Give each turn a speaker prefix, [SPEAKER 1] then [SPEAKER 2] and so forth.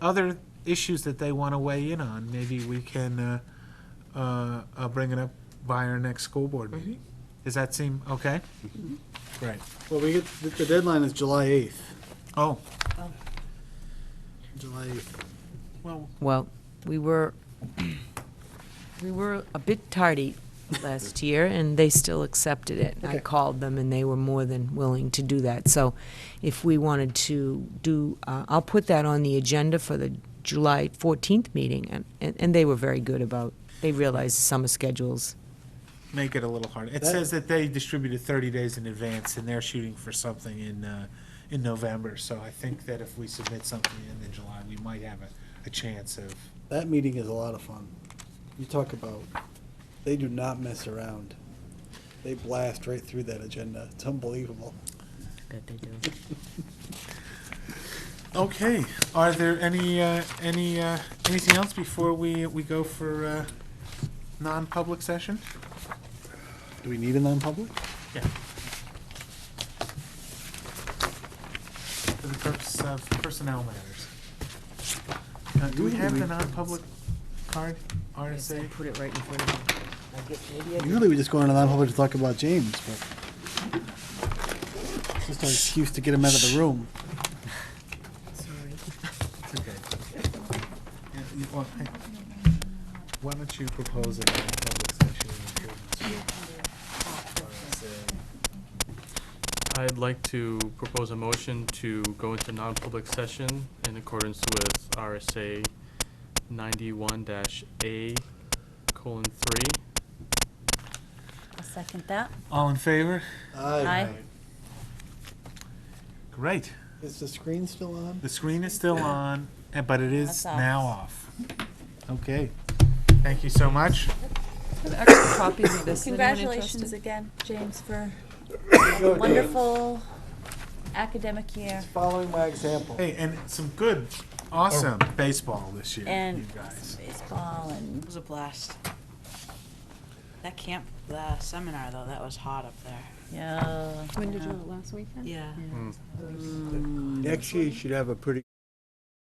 [SPEAKER 1] other issues that they want to weigh in on, maybe we can uh, uh, uh, bring it up by our next school board meeting. Does that seem okay? Great.
[SPEAKER 2] Well, we get, the- the deadline is July 8th.
[SPEAKER 1] Oh,
[SPEAKER 2] July 8th.
[SPEAKER 1] well,
[SPEAKER 3] Well, we were, we were a bit tardy last year, and they still accepted it. I
[SPEAKER 2] Okay.
[SPEAKER 3] called them, and they were more than willing to do that. So if we wanted to do, uh, I'll put that on the agenda for the July 14th meeting, and- and, and they were very good about, they realized the summer schedules.
[SPEAKER 1] make it a little harder. It
[SPEAKER 2] That-
[SPEAKER 1] says that they distributed 30 days in advance, and they're shooting for something in, uh, in November. So I think that if we submit something in in July, we might have a, a chance of,
[SPEAKER 2] That meeting is a lot of fun. You talk about, they do not mess around. They blast right through that agenda. It's unbelievable.
[SPEAKER 3] That they do.
[SPEAKER 1] Okay, are there any, uh, any, uh, anything else before we, we go for uh, non-public session?
[SPEAKER 2] Do we need a non-public?
[SPEAKER 1] Yeah. For the purpose of personnel matters. Uh, Do we have the non-public card, RSA?
[SPEAKER 3] Put it right in front of them. I guess maybe I did.
[SPEAKER 2] Usually we just go into non-public to talk about James, but it's just an excuse to get him out of the room.
[SPEAKER 3] Sorry.
[SPEAKER 1] It's okay. Yeah, you- well, hey, Why don't you propose a non-public session in accordance with
[SPEAKER 4] I'd like to propose a motion to go into non-public session in accordance with RSA ninety-one dash A colon three.
[SPEAKER 5] I'll second that.
[SPEAKER 1] RSA? All in favor?
[SPEAKER 5] Aye.
[SPEAKER 1] Great.
[SPEAKER 2] Is the screen still on?
[SPEAKER 1] The screen is still on, eh, but it is
[SPEAKER 5] That's off.
[SPEAKER 1] now off. Okay. Thank you so much.
[SPEAKER 3] Extra copies of this. Anyone
[SPEAKER 5] Congratulations
[SPEAKER 3] interested?
[SPEAKER 5] again, James, for a wonderful academic year.
[SPEAKER 2] Following my example.
[SPEAKER 1] Hey, and some good, awesome baseball this year, you
[SPEAKER 5] And
[SPEAKER 1] guys.
[SPEAKER 5] baseball and
[SPEAKER 6] It was a blast. That camp, the seminar though, that was hot up there.
[SPEAKER 5] yeah.
[SPEAKER 7] When did you, last weekend?
[SPEAKER 6] Yeah.
[SPEAKER 2] Next year you should have a pretty